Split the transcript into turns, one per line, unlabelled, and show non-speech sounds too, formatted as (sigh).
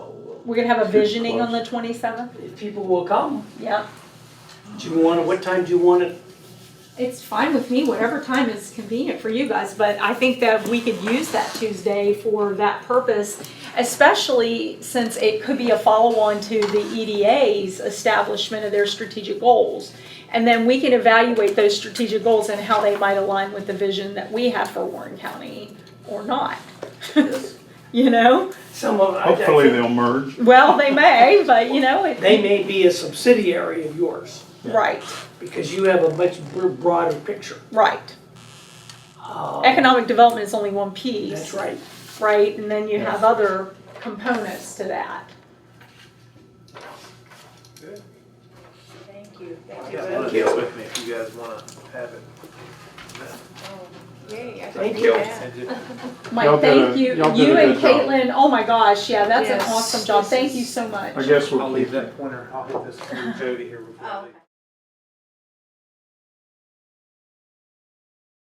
we're gonna have a
Too
visioning on the
close.
twenty-seventh,
If people will come,
yeah.
do you want, it? what time do you want it?
It's fine with me, whatever time is convenient for you guys, but I think that we could use that Tuesday for that purpose.
Especially since it could be a follow-on to the EDA's establishment of their strategic goals. And then we can evaluate those strategic goals and how they might align with the vision that we have for Warren County or not. (laughs) You know,
Some of, I I
Hopefully
think,
they'll merge.
well, they may, but you know, it,
they may be a subsidiary of yours,
right,
because you have a much br- broader picture.
right.
Uh,
Economic development is only one
That's
piece,
right.
right? And then you
Yeah.
have other components to that.
Thank you.
I
Thank
got one of
you.
these with me if you guys wanna have it.
Yay, I can
Thank
do
you.
that.
Y'all
Mike,
did a-
thank you,
y'all did
you
a
and
good job.
Caitlin, oh my gosh, yeah, that's an
Yes.
awesome job,
This
thank
is-
you so much.
I guess
I'll
we'll
leave
keep,
that pointer, I'll hit this to Jody here before I
Oh,
leave.
okay.